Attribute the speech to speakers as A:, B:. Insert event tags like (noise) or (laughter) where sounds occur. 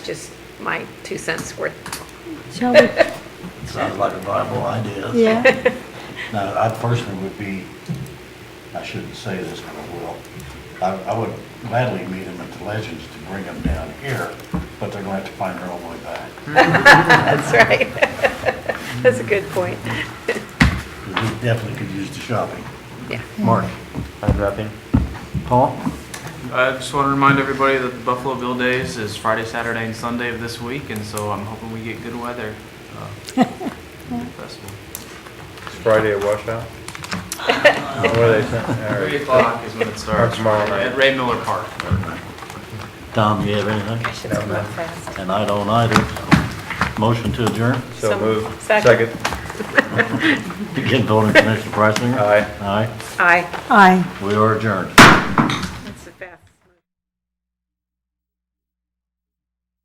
A: Just my two cents worth. (laughs)
B: Shall we?
C: Sounds like a viable idea.
B: Yeah,
C: Now, I personally would be, I shouldn't say this, but I will. I, I would gladly meet them at the Legends to bring them down here, but they're gonna have to find their own way back.
A: That's right. (laughs) That's a good point.
C: We definitely could use the shopping.
A: Yeah.
C: Mark?
D: I'd wrap in.
C: Paul?
E: I just want to remind everybody that the Buffalo Bill Days is Friday, Saturday, and Sunday of this week, and so I'm hoping we get good weather. uh, for the festival.
D: It's Friday at
A: (laughs)
D: washout. What are they saying? All
E: Three
D: right.
E: o'clock is when it starts.
D: tomorrow
E: Friday,
D: night.
E: At Ray Miller Park.
C: Tom, you have anything?
A: Gosh, it's going fast.
C: And I don't either. Motion to adjourn?
D: So
A: Some-
D: move.
A: second.
C: Again, voting Commissioner Priceinger?
D: Aye.
C: Aye,
A: Aye.
B: aye.
C: we are adjourned.